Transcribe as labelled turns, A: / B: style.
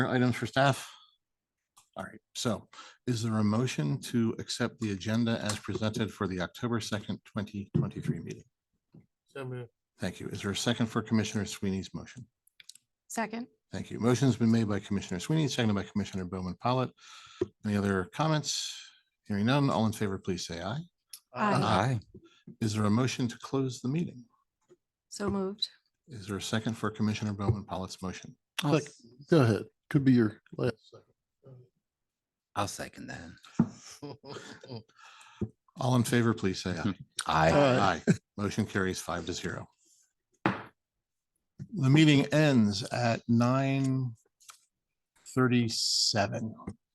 A: Items for staff? All right, so is there a motion to accept the agenda as presented for the October second, twenty twenty-three meeting?
B: So moved.
A: Thank you. Is there a second for Commissioner Sweeney's motion?
C: Second,
A: Thank you. Motion's been made by Commissioner Sweeney, seconded by Commissioner Bowman Pollitt. Any other comments? Hearing none, all in favor, please say aye. uh,
C: Aye.
A: Is there a motion to close the meeting?
C: so moved.
A: Is there a second for Commissioner Bowman Pollitt's motion?
D: Like, go ahead. Could be your last.
E: I'll second that.
A: All in favor, please say aye.
E: I.
D: Aye.
A: Aye. Motion carries five to zero. The meeting ends at nine thirty-seven.